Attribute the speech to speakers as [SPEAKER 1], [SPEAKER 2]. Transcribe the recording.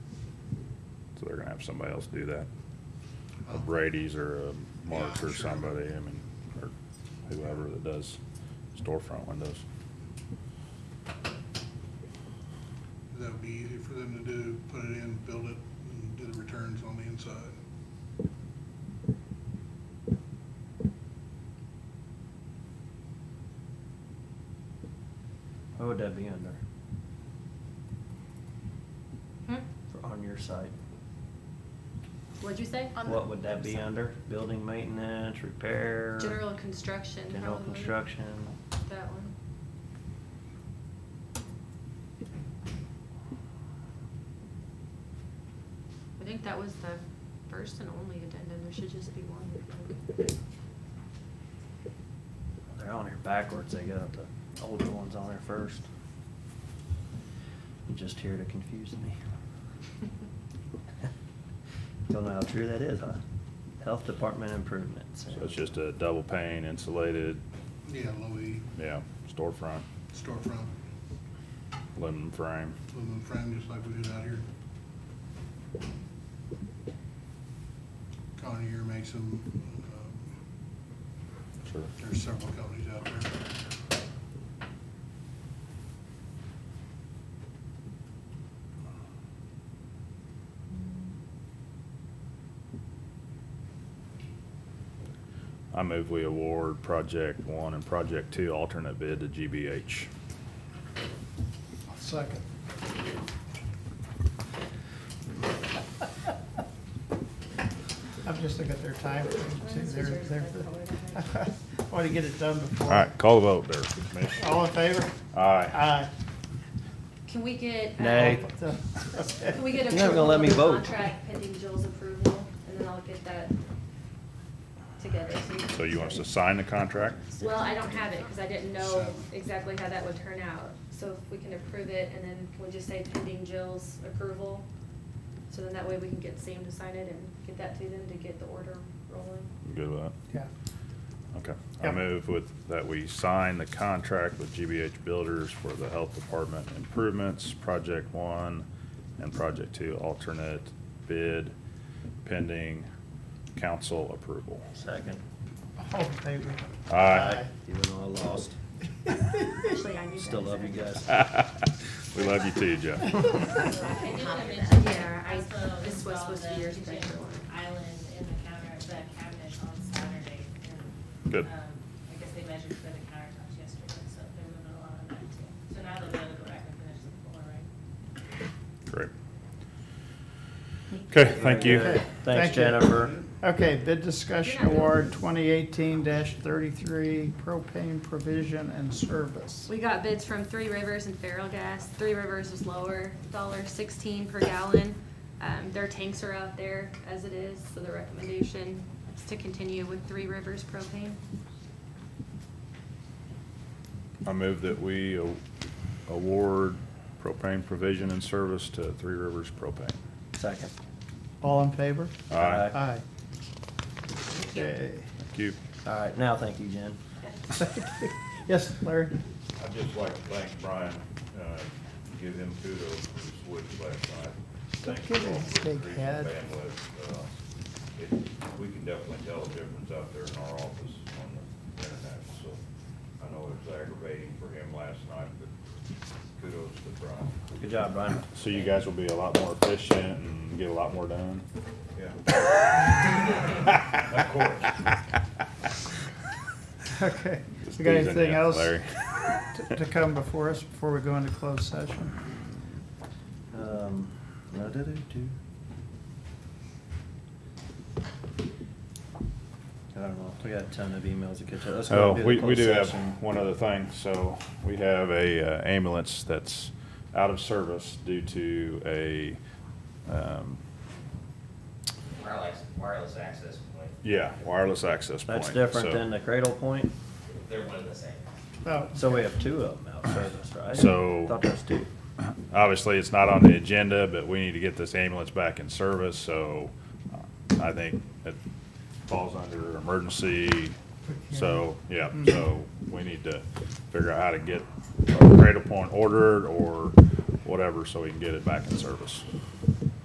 [SPEAKER 1] So they're gonna have somebody else do that. Or Brady's or uh, Mark
[SPEAKER 2] Yeah,
[SPEAKER 1] or
[SPEAKER 2] sure.
[SPEAKER 1] somebody, I mean, or whoever that does storefront windows.
[SPEAKER 2] That would be easy for them to do, put it in, build it, and do the returns on the inside.
[SPEAKER 3] What would that be under,
[SPEAKER 4] Hmm?
[SPEAKER 3] for, on your site?
[SPEAKER 4] What'd you say? On the-
[SPEAKER 3] What would that be under? Building maintenance, repair?
[SPEAKER 4] General construction.
[SPEAKER 3] General
[SPEAKER 4] probably.
[SPEAKER 3] construction?
[SPEAKER 4] That one. I think that was the first and only addendum. There should just be one.
[SPEAKER 3] They're on here backwards, they got the older ones on there first. You're Just here to confuse me. Don't know how true that is, huh? Health Department improvements.
[SPEAKER 1] So it's just a double pane insulated,
[SPEAKER 2] Yeah, low E,
[SPEAKER 1] yeah, storefront,
[SPEAKER 2] storefront,
[SPEAKER 1] aluminum frame.
[SPEAKER 2] aluminum frame, just like we did out here. Conair makes them, um,
[SPEAKER 1] Sure.
[SPEAKER 2] there's several companies out there.
[SPEAKER 1] I move we award project one and project two alternate bid to GBH.
[SPEAKER 2] Second.
[SPEAKER 5] I'm just looking at their time, too, they're, they're, I want to get it done before.
[SPEAKER 1] All right, call the vote there. Commissioner.
[SPEAKER 5] All in favor?
[SPEAKER 1] Aye.
[SPEAKER 5] Aye.
[SPEAKER 4] Can we get? uh,
[SPEAKER 3] Nay.
[SPEAKER 4] Can we get
[SPEAKER 3] You're not
[SPEAKER 4] approval
[SPEAKER 3] gonna let
[SPEAKER 4] of
[SPEAKER 3] me
[SPEAKER 4] the
[SPEAKER 3] vote.
[SPEAKER 4] contract pending Jill's approval, and then I'll get that together. can-
[SPEAKER 1] So you want us to sign the contract?
[SPEAKER 4] Well, I don't have it, because I didn't know
[SPEAKER 2] So-
[SPEAKER 4] exactly how that would turn out. So if we can approve it, and then we'll just say pending Jill's approval, so then that way we can get Sam to sign it and get that to them to get the order rolling.
[SPEAKER 1] You Good with that?
[SPEAKER 5] Yeah,
[SPEAKER 1] Okay. I
[SPEAKER 5] Yep.
[SPEAKER 1] move with, that we sign the contract with GBH Builders for the Health Department improvements, Project One and Project Two alternate bid pending council approval.
[SPEAKER 3] Second,
[SPEAKER 5] all in favor?
[SPEAKER 1] Aye.
[SPEAKER 3] even though I lost,
[SPEAKER 4] Actually, I knew that.
[SPEAKER 3] still love you guys.
[SPEAKER 1] We love you too, Jeff.
[SPEAKER 6] I did wanna
[SPEAKER 4] Copy that.
[SPEAKER 6] mention
[SPEAKER 4] Yeah, I-
[SPEAKER 6] also
[SPEAKER 4] this was supposed to be
[SPEAKER 6] install
[SPEAKER 4] yours,
[SPEAKER 6] the
[SPEAKER 4] but I
[SPEAKER 6] kitchen
[SPEAKER 4] forgot.
[SPEAKER 6] Island in the counter, the cabinet on Saturday. and,
[SPEAKER 1] Good.
[SPEAKER 6] um, I guess they measured for the countertops yesterday, so they're moving along on that too. So now they'll be able to go back and finish the floor, right?
[SPEAKER 1] Great. Okay, thank you.
[SPEAKER 3] Very good.
[SPEAKER 5] Thank
[SPEAKER 3] Thanks,
[SPEAKER 5] you.
[SPEAKER 3] Jennifer.
[SPEAKER 5] Okay, bid discussion award twenty eighteen thirty-three propane provision and service.
[SPEAKER 4] We got bids from Three Rivers and Feral Gas. Three Rivers was lower, dollar sixteen per gallon. Um, their tanks are out there as it is, so the recommendation is to continue with Three Rivers propane.
[SPEAKER 1] I move that we a- award propane provision and service to Three Rivers Propane.
[SPEAKER 3] Second.
[SPEAKER 5] All in favor?
[SPEAKER 1] Aye.
[SPEAKER 5] Aye.
[SPEAKER 4] you.
[SPEAKER 5] Okay.
[SPEAKER 1] Thank you.
[SPEAKER 3] All right, now thank you, Jen.
[SPEAKER 5] Yes, Larry?
[SPEAKER 7] I'd just like to thank Brian, uh, give him kudos for his wood last night. Thanks for
[SPEAKER 5] Give him
[SPEAKER 7] all
[SPEAKER 5] his
[SPEAKER 7] the
[SPEAKER 5] big
[SPEAKER 7] increase in
[SPEAKER 5] head.
[SPEAKER 7] bandwidth. Uh, it- We can definitely tell a difference out there in our office on the internet, so I know it was aggravating for him last night, but kudos to Brian.
[SPEAKER 3] Good job, Brian.
[SPEAKER 1] So you guys will be a lot more efficient and get a lot more done?
[SPEAKER 7] Yeah. Of course.
[SPEAKER 5] Okay.
[SPEAKER 1] Just
[SPEAKER 5] We got
[SPEAKER 1] teasing
[SPEAKER 5] anything
[SPEAKER 1] you,
[SPEAKER 5] else
[SPEAKER 1] Larry.
[SPEAKER 5] to to come before us, before we go into closed session?
[SPEAKER 3] Um, la-da-doo-doo. I don't know, we got a ton of emails to catch up. Let's go
[SPEAKER 1] Oh,
[SPEAKER 3] do the
[SPEAKER 1] we, we
[SPEAKER 3] closed
[SPEAKER 1] do have
[SPEAKER 3] session.
[SPEAKER 1] one other thing. So we have a uh, ambulance that's out of service due to a, um,
[SPEAKER 8] wireless, wireless access point,
[SPEAKER 1] yeah, wireless access point.
[SPEAKER 3] That's different
[SPEAKER 1] So-
[SPEAKER 3] than the Cradle Point,
[SPEAKER 8] they're one and the same.
[SPEAKER 5] Oh,
[SPEAKER 3] so we have two of them out service, right?
[SPEAKER 1] So-
[SPEAKER 3] Thought that was two.
[SPEAKER 1] Obviously, it's not on the agenda, but we need to get this ambulance back in service, so uh, I think it falls under emergency. So, yeah, so we need to figure out how to get a Cradle Point ordered or whatever, so we can get it back in service.